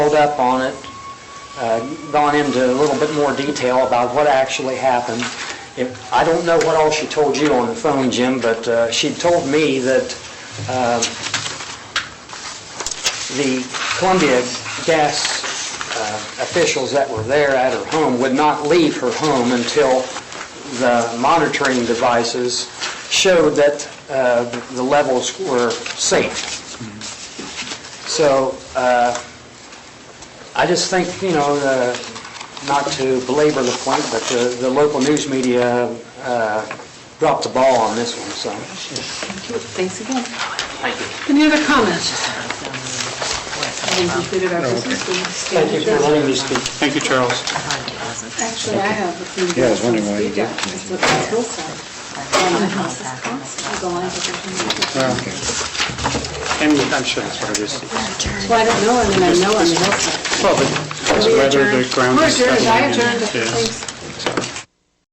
Hold up on it, uh, gone into a little bit more detail about what actually happened. If- I don't know what all she told you on the phone, Jim, but uh, she told me that uh, the Columbia Gas uh, officials that were there at her home would not leave her home until the monitoring devices showed that uh, the levels were safe. So uh, I just think, you know, uh, not to belabor the point, but the- the local news media uh, dropped the ball on this one, so. Thanks again. Thank you. Any other comments? I think we did our business. We stand Thank you for adjourned. letting me speak. Thank you, Charles. Actually, I have a few. Yeah, I was wondering why you speak didn't. up. It's what the hillside. On the house is constant, the lines of the- And I'm sure that's what it is. Well, I don't know, I mean, I know on the hillside. Well, but We whether the adjourned. ground We're is adjourned. settling I in, adjourned, yeah. thanks.